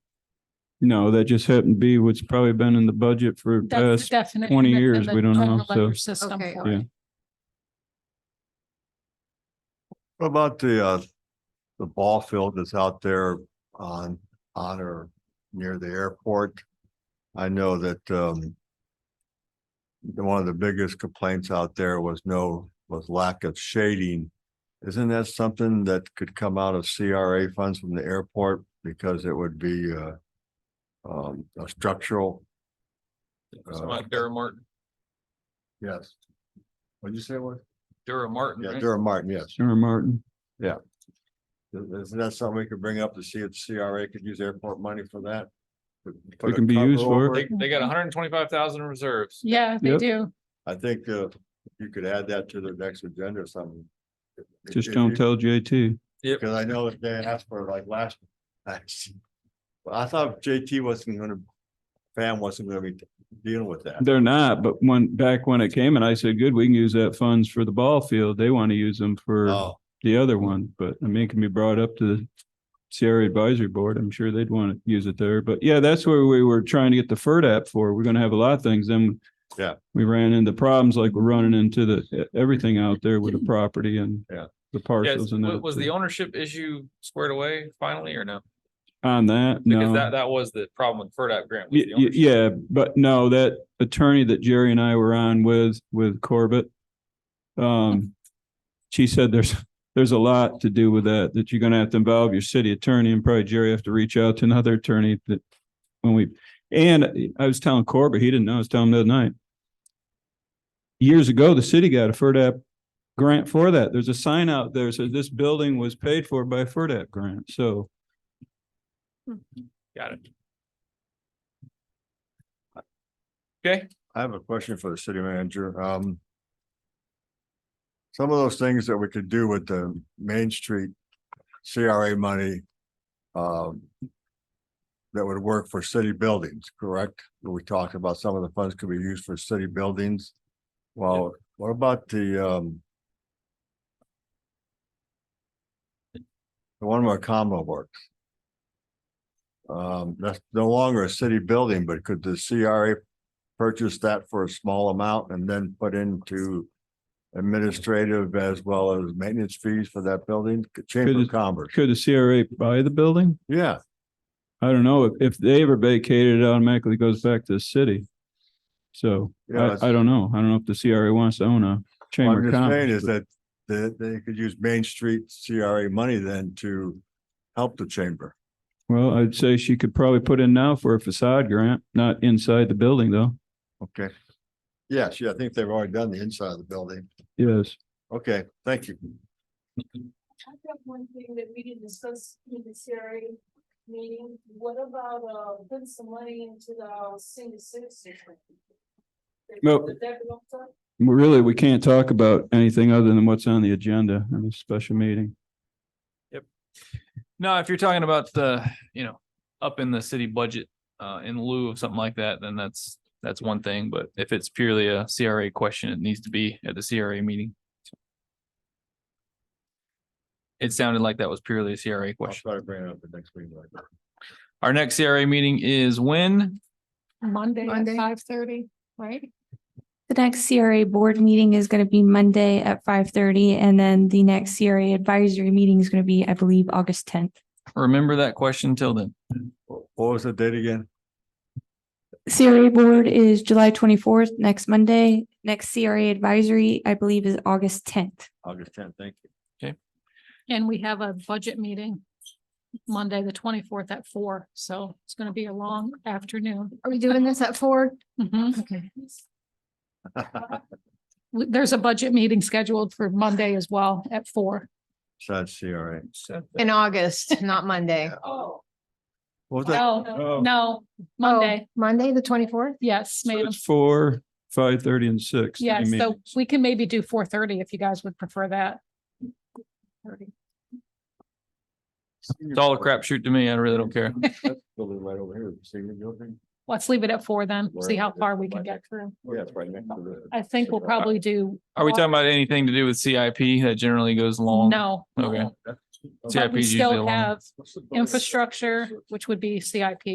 No, that just happened to be what's probably been in the budget for That's the past. definition 20 that's in years, the we don't know, general so- ledger System Okay, for all it. right. What about the, uh, the ball field that's out there on, on or near the airport? I know that, um, the- one of the biggest complaints out there was no, was lack of shading. Isn't that something that could come out of CRA funds from the airport because it would be, uh, um, a structural? It's uh, not Dura Martin, Yes. What'd you say, it was? Dura Martin, Yeah, right? Durham Martin, yes. Senator Martin, Is- Isn't that something we could bring up to see if CRA could use airport money for that? Put It a can be cover used for it. over They, they got hundred and twenty-five thousand in reserves. Yeah, they Yep. do. I think uh, you could add that to the next agenda or something. just don't tell JT. Because I know that they asked for like last. last- Well, I thought JT wasn't gonna, Pam wasn't gonna be dealing with that. They're not, but when, back when it came and I said, good, we can use that funds for the ball field. They want to use them for Oh, the other one, but I mean, it can be brought up to the CRA advisory board. I'm sure they'd want to use it there, but yeah, that's where we were trying to get the FERD app for. We're going to have a lot of things. Then Yeah. we ran into problems like we're running into the, e, everything out there with the property and Yeah. the Yes, parcels and wa- was the everything. ownership issue squared away finally or no? on that. Because no. that, that was the problem with FERDAP grant. was Y- the y- ownership. Yeah, but no, that attorney that Jerry and I were on with, with Corbett. Um, she said there's, there's a lot to do with that, that you're gonna have to involve your city attorney and probably Jerry have to reach out to another attorney that. When we, and I was telling Corbett, he didn't know, I was telling him the other night. Years ago, the city got a FERDAP grant for that. There's a sign out there, that says this building was paid for by a FERDAP grant, so. Got it. I have a question for the city manager. Um. Some of those things that we could do with the Main Street CRA money. Um. That would work for city buildings, correct? We talked about some of the funds could be used for city buildings. Well, what about the um? The one where Commonwealth works. Um, that's no longer a city building, but could the CRA purchase that for a small amount and then put into administrative as well as maintenance fees for that building, Chamber Could of it- Commerce, Could the CRA buy the building? yeah. I don't know, if, if they ever vacate it, it automatically goes back to the city. So yeah, I, I don't know. I don't know if the CRA wants to own a What chamber I'm of just saying commerce. is but that they, they could use Main Street CRA money then to help the chamber. Well, I'd say she could probably put in now for a facade grant, not inside the building though. Okay. Yes, yeah, I think they've already done the inside of the building. Yes. Okay, thank you. I have one thing that we didn't discuss in the CRA meeting, what about, uh, putting some money into the senior citizen? Well- Would that be okay? Well, Really, we can't talk about anything other than what's on the agenda in this special meeting. No, if you're talking about the, you know, up in the city budget, uh, in lieu of something like that, then that's, that's one thing. But if it's purely a CRA question, it needs to be at the CRA meeting. It sounded like that was purely a CRA I'll question. try to bring it up the next meeting. like that. Our next CRA meeting is when? Monday at Monday. five thirty, right? The next CRA board meeting is going to be Monday at five thirty, and then the next CRA advisory meeting is going to be, I believe, August tenth. Remember that question till then. What was the date again? CRA board is July twenty-fourth, next Monday. Next CRA advisory, I believe, is August tenth. August tenth, thank you. And we have a budget meeting Monday, the twenty-fourth at four, so it's gonna be a long afternoon. Are we doing this at four? Mhm. Okay. W- There's a budget meeting scheduled for Monday as well at four. Besides CRA. In August, not Monday. Oh, What was that? No, Oh, Oh, no, Monday, Oh, Monday, the twenty-fourth? yes, So madam It's four, five thirty and six. three Yes, so meetings. we can maybe do four thirty if you guys would prefer that. It's all a crapshoot to me. I really don't care. That's Building right over here, senior building. Let's leave it at four then, see how far we can get through. Yeah, it's right next to the. I think we'll probably do. Are we talking about anything to do with CIP that generally goes long? No. Okay. But CIP we is usually still long. have infrastructure, which would be CIP.